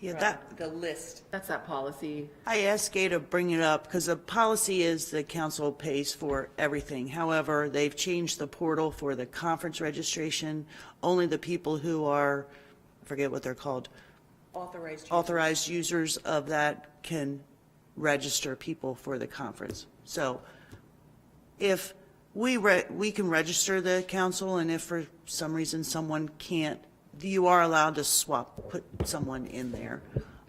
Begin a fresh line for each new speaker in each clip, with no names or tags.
Yeah,
from
that,
The list.
That's that policy.
I asked Gay to bring it up because the policy is the council pays for everything. However, they've changed the portal for the conference registration. Only the people who are, I forget what they're called,
Authorized. use.
authorized users of that can register people for the conference. So if we, re- we can register the council, and if for some reason someone can't, you are allowed to swap, put someone in there.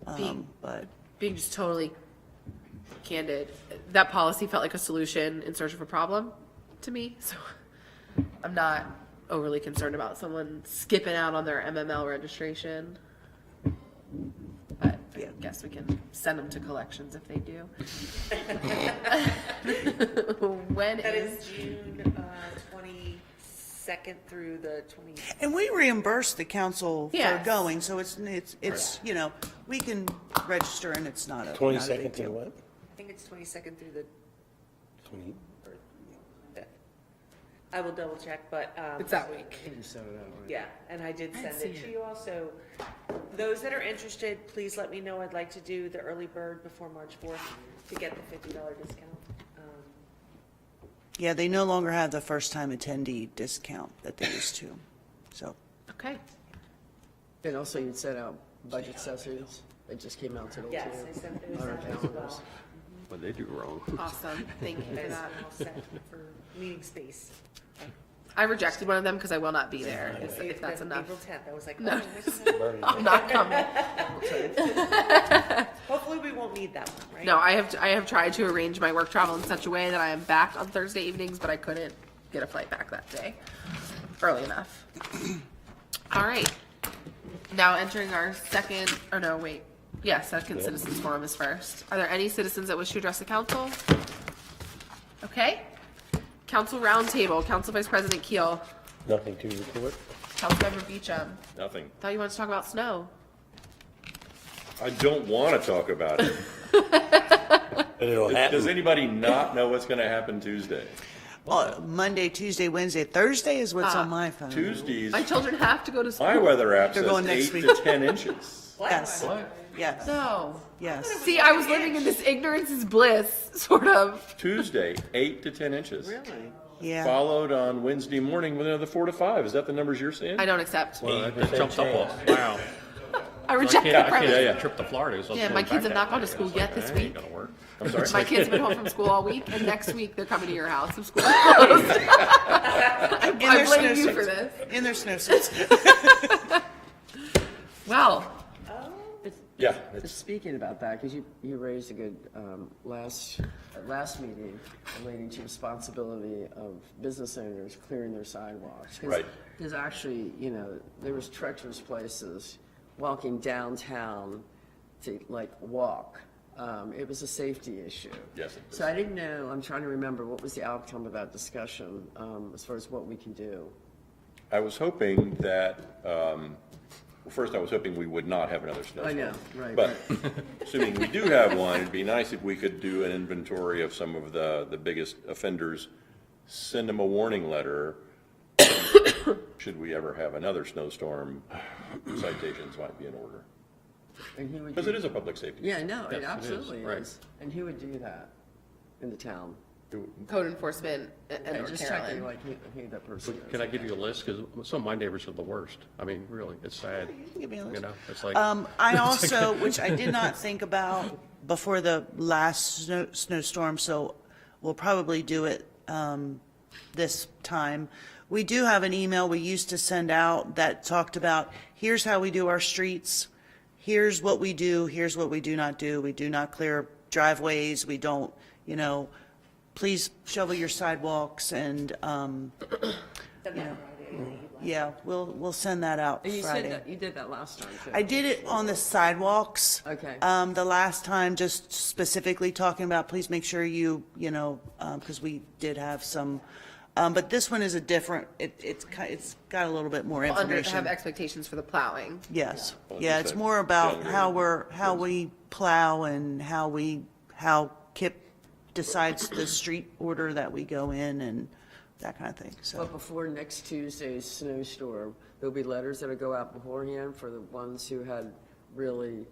Um, But,
Being just totally candid, that policy felt like a solution in search of a problem to me. So I'm not overly concerned about someone skipping out on their MML registration. But I
Yeah.
guess we can send them to collections if they do. When
That
is,
is June uh, twenty-second through the twenty,
and we reimburse the council for
Yes.
going, so it's, it's, it's, you know, we can register and it's not a, not a big
Twenty-second
deal.
to what?
I think it's twenty-second through the
Twenty,
fifth. I will double check, but, um.
it's that week.
Yeah, and I did send
see
it to
it.
you all, so those that are interested, please let me know. I'd like to do the early bird before March fourth to get the fifty dollar discount. Um,
Yeah, they no longer have the first-time attendee discount that they used to, so.
Okay.
And also you sent out budget sessions. It just came out today too.
Yes, I sent those
on our
out as
calendars.
well.
What they do wrong.
Awesome. Thank you for
That's
that.
all set for meeting space.
I rejected one of them because I will not be there, if- if that's
Then
enough.
April tenth, I was like, oh,
No.
this is-
I'm not coming.
hopefully we won't need that one, right?
No, I have I have tried to arrange my work travel in such a way that I am back on Thursday evenings, but I couldn't get a flight back that day early enough. All right. Now entering our second, oh no, wait. Yeah, second citizens forum is first. Are there any citizens that wish to address the council? Okay. Council roundtable, Council Vice President Keel,
nothing to report.
Councilmember Beecham.
Nothing.
Thought you wanted to talk about snow.
I don't want to talk about it.
But it'll
Does
happen.
anybody not know what's going to happen Tuesday?
Uh, Monday, Tuesday, Wednesday, Thursday is what's
Ah.
on my phone.
Tuesdays,
My children have to go to school.
my weather app
They're
says
going next
eight
week.
to 10 inches.
Yes, yes,
No.
yes.
See, I was living in this ignorance is bliss sort of.
Tuesday, eight to 10 inches.
Yeah,
Followed on Wednesday morning with another four to five. Is that the numbers you're seeing?
I don't accept.
Well, that- that
80%
jumped up
chance.
off. Wow.
I
I
reject the
can't, I can't
premise.
Yeah, yeah.
take a trip to Florida. so
Yeah,
it's
my
going
kids
back
have not
that
gone to
way.
school
It's
yet
like,
this
that ain't
week.
gonna work.
I'm sorry.
My kids have been home from school all week, and next week they're coming to your house if school.
and
I
there's no
blame you
sense.
for this.
And there's no sense.
Well,
Yeah,
Just
it's
Speaking about that, because you, you raised a good, um, last, at last meeting relating to responsibility of business owners clearing their sidewalks. 'Cause
Right.
There's actually, you know, there was treacherous places, walking downtown to like walk. Um, it was a safety issue.
Yes, it
So I didn't know, I'm trying to remember, what was the outcome of that discussion, um, as far as what we can do?
I was hoping that, um, well, first I was hoping we would not have another snowstorm.
I know, right,
But assuming we do have one, it'd be nice if we could do an inventory of some of the, the biggest offenders, send them a warning letter. Should we ever have another snowstorm, citations might be in order.
And who would
Because
do-
it is a public safety.
Yeah, no,
Yes, it
it
is,
absolutely
right.
is. And who would do that in the town?
code enforcement and
And
or
just checking,
Carolyn.
like, who, who that person is.
Can I give you a list? Because some of my neighbors are the worst. I mean, really, it's sad.
Give me a list.
You know, it's like,
Um, I also, which I did not think about before the last snow, snowstorm, so we'll probably do it, um, this time. We do have an email we used to send out that talked about, here's how we do our streets. Here's what we do, here's what we do not do. We do not clear driveways, we don't, you know, please shovel your sidewalks and, um,
Then that Friday.
yeah, we'll, we'll send that out
And
Friday.
you said that, you did that last time, too.
I did it on the sidewalks.
Okay.
Um, the last time, just specifically talking about, please make sure you, you know, um, cause we did have some, um, but this one is a different, it, it's ki it's got a little bit more
Under have
information.
expectations for the plowing.
Yes.
Well,
Yeah,
it's
it's
a
more about
younger
how we're, how we plow and how we, how KIP decides the street order that we go in and that kind of thing, so.
But before next Tuesday's snowstorm, there'll be letters that'll go out beforehand for the ones who had really